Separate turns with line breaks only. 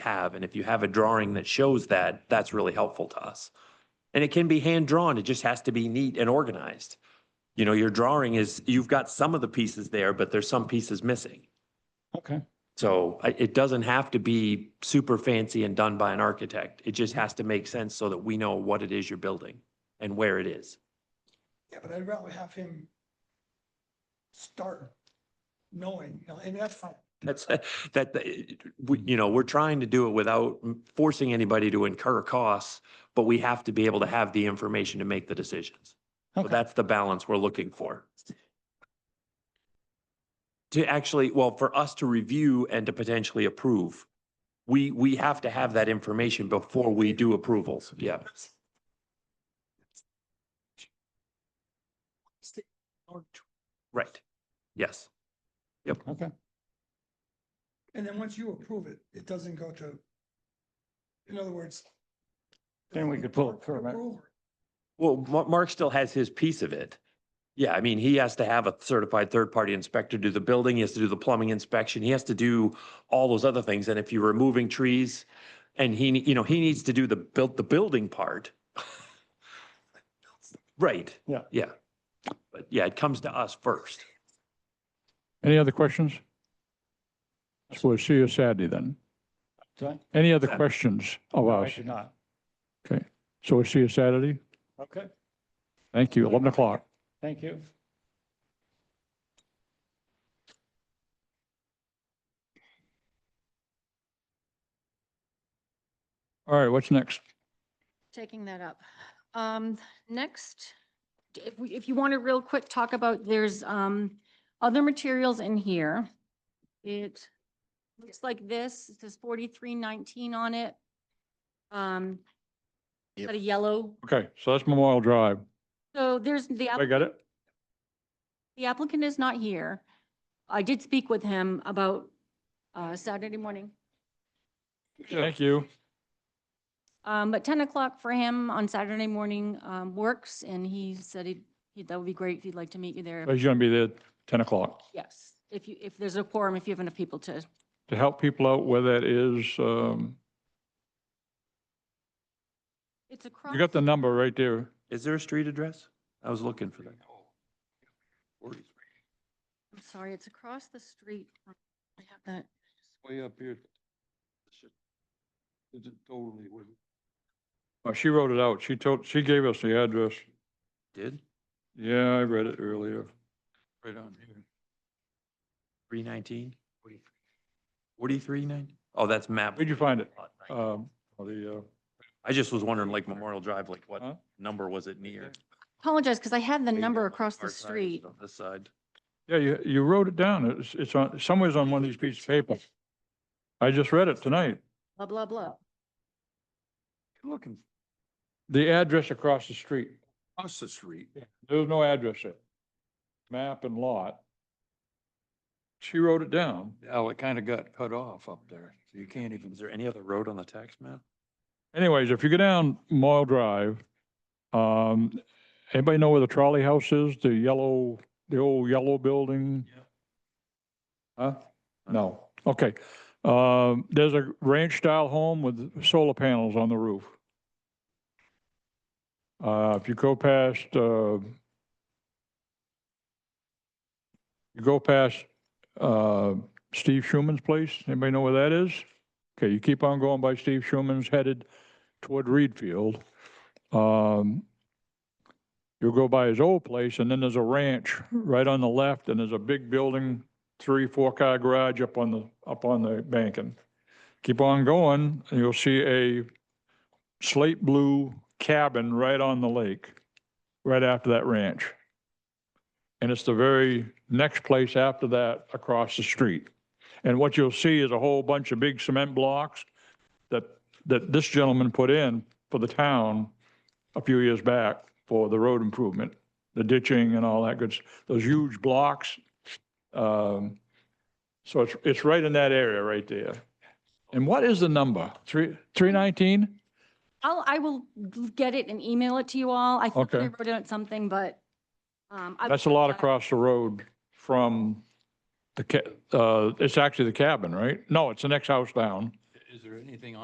have. And if you have a drawing that shows that, that's really helpful to us. And it can be hand drawn. It just has to be neat and organized. You know, your drawing is, you've got some of the pieces there, but there's some pieces missing.
Okay,
So I- it doesn't have to be super fancy and done by an architect. It just has to make sense so that we know what it is you're building and where it is.
Yeah, but I'd rather have him start knowing, you know, and that's fine.
That's, uh, that, that- we, you know, we're trying to do it without forcing anybody to incur costs, but we have to be able to have the information to make the decisions. So
okay.
that's the balance we're looking for. To actually, well, for us to review and to potentially approve, we, we have to have that information before we do approvals. Yeah.
Stay- or tw-
Right. Yes.
Okay,
And then once you approve it, it doesn't go to, in other words.
Then we could pull it through, right?
Approval.
Well, Ma- Mark still has his piece of it. Yeah, I mean, he has to have a certified third-party inspector do the building, he has to do the plumbing inspection, he has to do all those other things. And if you're removing trees and he, ne- you know, he needs to do the built, the building part. Right.
Yeah.
Yeah. But yeah, it comes to us first.
Any other questions? So we'll see you Saturday then.
Do I?
Any other
Yeah.
questions of
No, I
us?
do not.
So we'll see you Saturday.
Okay,
Thank you, 11 o'clock.
thank you.
All right, what's next?
taking that up. Um, next, d- if we, if you want to real quick talk about, there's, um, other materials in here. It looks like this, it says forty-three nineteen on it. Um,
Yep.
got a yellow.
Okay, so that's Memorial Drive.
So there's the. app-
I got it?
the applicant is not here. I did speak with him about uh, Saturday morning,
Thank you.
Um, but 10 o'clock for him on Saturday morning um, works, and he said he'd- he, that would be great if he'd like to meet you there.
He's going to be there at 10 o'clock
Yes, if you, if there's a quorum, if you have enough people to,
to help people out where that is. um,
it's across.
You got the number right there.
Is there a street address? I was looking for that.
I'm sorry, it's across the street. from- I have that.
Way up here. Is it totally with?
Oh, She wrote it out. She told, she gave us the address.
Did?
Yeah, I read it earlier.
Right on here.
Three nineteen? Forty-three nine? Oh, that's map.
Where'd you find it?
Lot nine.
Um, The, uh,
I just was wondering, like Memorial Drive, like
Huh?
what number was it near?
Apologize, because I had the
Maybe
number
on my
across the
far side,
street.
it's On this side.
yeah, you, you wrote it down. It's, it's on, somewhere's on one of these pieces of paper. I just read it tonight.
Blah, blah, blah.
Looking
The address across the street,
across the street.
there was no address there. Map and lot. She wrote it down.
Oh, it kind of got cut off up there. So you can't even.
Is there any other road on the tax map?
Anyways, if you go down Mile Drive, um, anybody know where the trolley house is? The yellow, the old yellow building?
Yeah.
Huh? No, okay. Um, there's a ranch style home with solar panels on the roof. Uh, if you go past, uh, you go past, uh, Steve Schuman's place, anybody know where that is? Okay, you keep on going by Steve Schuman's headed toward Reed Field. Um, you'll go by his old place and then there's a ranch right on the left and there's a big building, three, four car garage up on the, up on the banking. Keep on going and you'll see a slate blue cabin right on the lake, right after that ranch. And it's the very next place after that across the street. And what you'll see is a whole bunch of big cement blocks that, that this gentleman put in for the town a few years back for the road improvement, the ditching and all that good, s- those huge blocks. Um, So it's, it's right in that area right there. And what is the number? Three, 319?
I'll, I will get it and email it to you all. I think I
Okay.
wrote out something, but. um, I-
That's a lot across the road from the, ca- uh, it's actually the cabin, right? No, it's the next house down.
Is there anything